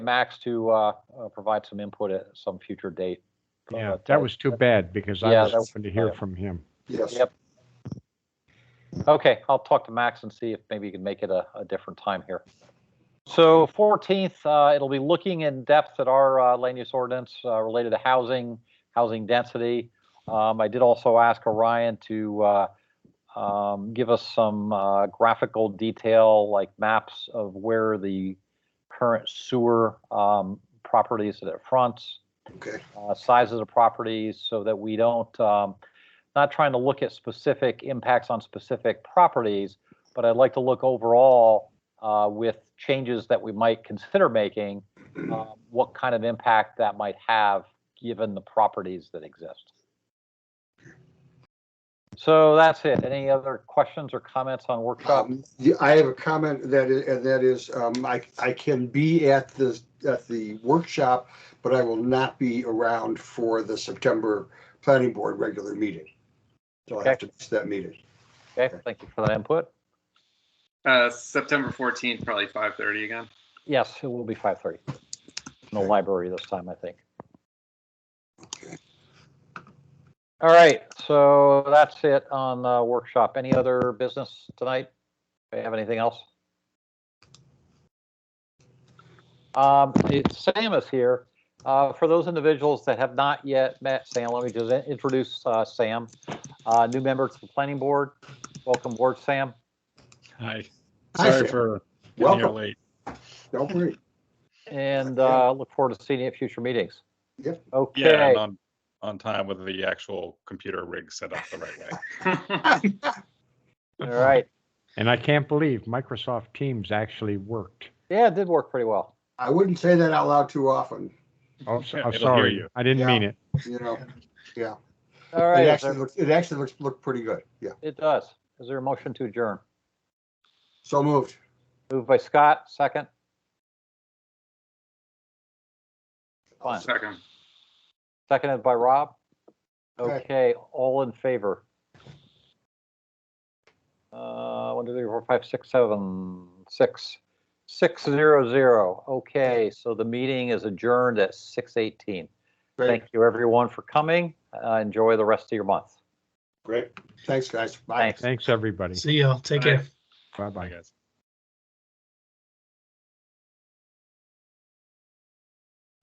Max to uh, uh, provide some input at some future date. Yeah, But, uh, that was too bad because I Yeah, was that was hoping to hear bad. from him. Yes. Yep. Okay, I'll talk to Max and see if maybe you can make it a, a different time here. So 14th, uh, it'll be looking in depth at our uh, land use ordinance uh, related to housing, housing density. Um, I did also ask Orion to uh, um, give us some uh, graphical detail, like maps of where the current sewer um, properties that it fronts. Okay. uh, sizes of properties so that we don't, um, not trying to look at specific impacts on specific properties, but I'd like to look overall uh, with changes that we might consider making, um, what kind of impact that might have given the properties that exist. So that's it. Any other questions or comments on workshop? Um, yeah, I have a comment that is, and that is, um, I, I can be at the, at the workshop, but I will not be around for the September planning board regular meeting. So I have to miss that meeting. Okay, thank you for that input. Uh, September fourteenth, probably five thirty again. Yes, it will be 5:30. No Okay. library this time, I think. Okay. All right, so that's it on uh, workshop. Any other business tonight? Do you have anything else? Um, it- Sam is here. Uh, For those individuals that have not yet met Sam, let me just in- introduce uh, Sam, uh, new member to the planning board. Welcome board, Sam. Hi, Hi, sorry Sam. for getting here Welcome. late. Don't worry. And uh, look forward to seeing you at future meetings. Yep. Yeah, Okay. and on, on time with the actual computer rig set up the right way. All right. And I can't believe Microsoft Teams actually worked. Yeah, it did work pretty well. I wouldn't say that out loud too often, Oh, s- Yeah, I'm it'll hear sorry. you. I didn't Yeah. mean it. you know? Yeah. All It right, is actually there- looks, it actually looks, looked pretty good. Yeah. it does. Is there a motion to adjourn? So moved. Moved by Scott, second, Fine. Second. seconded by Rob. Okay. Okay, all in favor? Uh, one, two, three, four, five, six, seven, six, six, zero, zero. Okay, so the meeting is adjourned at six eighteen. Great, Thank you, everyone, for coming. Uh, enjoy the rest of your month. great. Thanks, guys. Bye. Thanks. Thanks, everybody. See y'all. Take Bye. care. Bye-bye. Bye, guys.